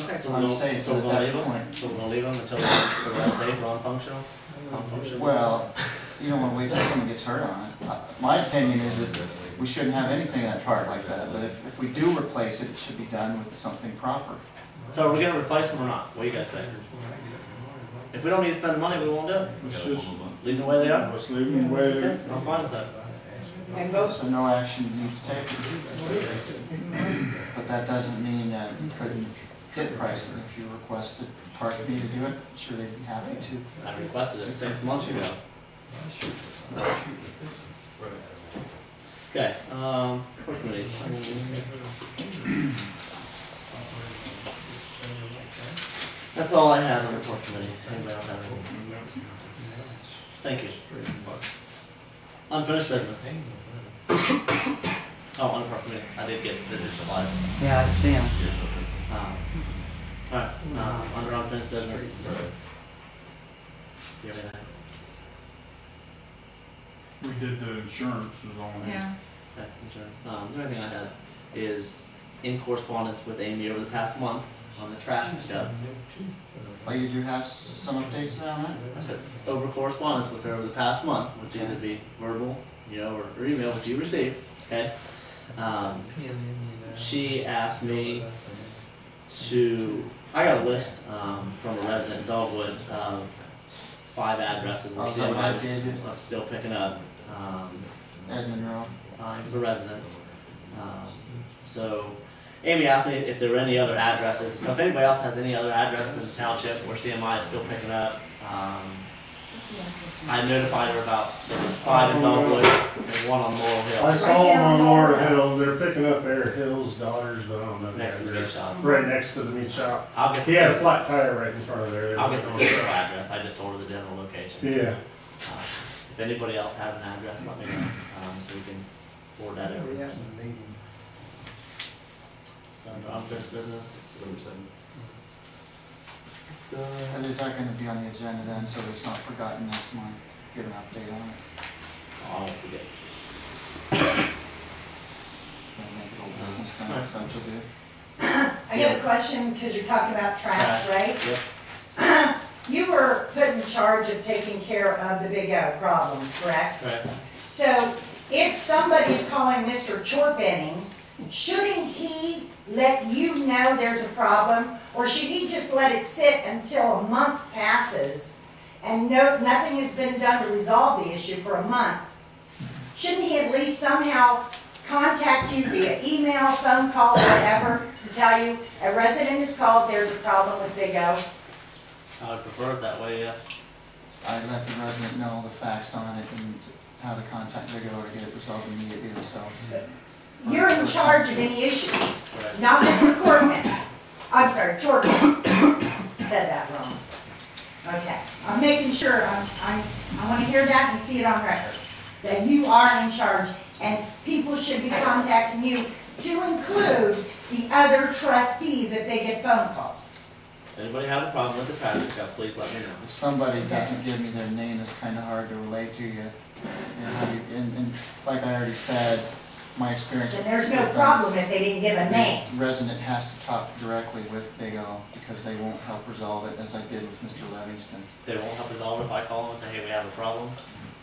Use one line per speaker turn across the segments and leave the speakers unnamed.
Okay, so
I'm
we'll, so
saying
we're
that
gonna
that
leave them,
point-
so we're gonna leave them until, until that's a non-functional, non-functional?
Well, you don't wanna wait till someone gets hurt on it. Uh, My opinion is that we shouldn't have anything that's hard like that, but if, if we do replace it, it should be done with something proper.
So are we gonna replace them or not? What do you guys think? If we don't need to spend the money, we won't do it.
Let's just,
Leave them the way they are?
let's leave them where
Okay,
they're.
I'm fine with that.
And those,
So no action needs taken. But that doesn't mean that you couldn't get pricing if you requested Park B to do it, sure they'd be happy to.
I requested it six months ago. Okay, um, quickly. That's all I have on the report committee. Anybody else have anything? Thank you. Unfinished business. Oh, on the report committee. I did get the supplies.
yeah, I see them.
Um, Alright, uh, under unfinished business. Do you have anything?
We did the insurance is on there.
Yeah,
Okay, insurance. Um, the only thing I had is in correspondence with Amy over the past month on the trash pickup.
Well, you do have s- some updates on that?
I said over correspondence with her over the past month, which either be verbal, you know, or, or email, which you received, okay? Um, she asked me to, I got a list, um, from a resident in Dogwood, um, five addresses,
Oh,
we're
is
seeing
that
what
what
I
I
was,
did?
I'm still picking up. Um,
Ed Monroe,
uh, he was a resident. Um, so Amy asked me if there were any other addresses. So if anybody else has any other addresses in the township where CMI is still picking up, um, I notified her about there was five in Dogwood and one on Laurel
I
Hill
saw them on Laura Hill, they're picking up Air Hill's daughters, but I don't know. the
next to the meat
address.
shop.
Right next to the meat shop.
I'll get
He had a
the,
flat tire right in front of there.
I'll get the physical address. I just ordered the general location.
Yeah,
Uh, if anybody else has an address, let me know um, so we can forward that over. So under unfinished business, it's number seven. It's done.
that is that gonna be on the agenda then, so it's not forgotten next month, give an update on it,
Oh, I won't forget.
and make it old business then, if that's what you do.
I got a question, because you're talking about trash, right?
Yep.
You were put in charge of taking care of the Big O problems, correct?
All right.
So if somebody's calling Mr. Chorbenning, shouldn't he let you know there's a problem? Or should he just let it sit until a month passes and no, nothing has been done to resolve the issue for a month? Shouldn't he at least somehow contact you via email, phone call, whatever, to tell you a resident has called, there's a problem with Big O?
I would prefer it that way, yes.
I let the resident know the facts on it and how to contact Vigo to get it resolved immediately themselves.
You're in charge of any issues.
Right.
Not Mr. Corkman. I'm sorry, Jordan. Said that wrong. Okay, I'm making sure, I'm, I'm, I wanna hear that and see it on record, that you are in charge, and people should be contacting you to include the other trustees if they get phone calls.
Anybody has a problem with the trash pickup, please let me know.
If somebody doesn't give me their name, it's kinda hard to relate to you. And how you, and, and like I already said, my experience.
And there's no
with them,
problem if they didn't give a name.
the Resident has to talk directly with Big O because they won't help resolve it as I did with Mr. Livingston.
They won't help resolve it if I call them and say, hey, we have a problem.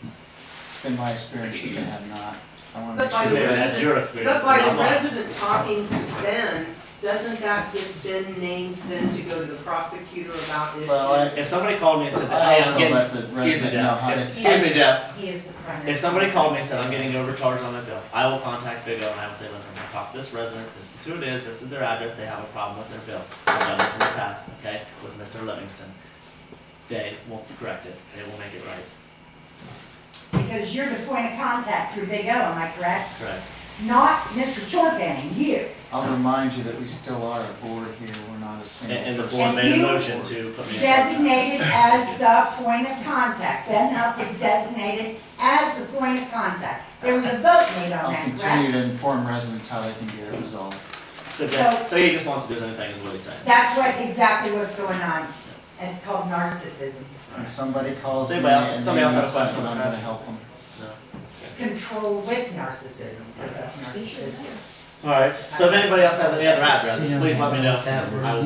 It's been my experience that they have not. I wanna
But
make sure
by
the
the
resident.
That's your experience,
But by
not
the
mine.
resident talking to Ben, doesn't that give Ben names then to go to the prosecutor about issues?
Well, I-
If somebody called me and said,
I
hey, I'm
also
getting,
let the
excuse me,
resident know how
Jeff,
to-
If- excuse me, Jeff.
He is the primary.
If somebody called me and said, I'm getting overcharged on that bill, I will contact Big O and I will say, listen, I talked to this resident, this is who it is, this is their address, they have a problem with their bill. I've done this in the past, okay, with Mr. Livingston. They will correct it, they will make it right,
Because you're the point of contact through Big O, am I correct?
correct?
Not Mr. Jordan, you.
I'll remind you that we still are a board here. We're not a
And,
single.
and the
person.
board made a
you
motion to put me in.
designated as the point of contact. Ben Huff was designated as the point of contact. There was a vote made on
I'll
that,
continue
correct?
to inform residents how they can get it resolved.
So, Jeff- so he just wants to do his own thing is what he's saying.
That's what, exactly what's going on. It's called narcissism.
When somebody calls me and
Anybody else-
they need
somebody else have a
something,
question?
I'm gonna help them.
No.
Control with narcissism, because that's narcissism.
All right. So if anybody else has any other addresses, please let me know. I will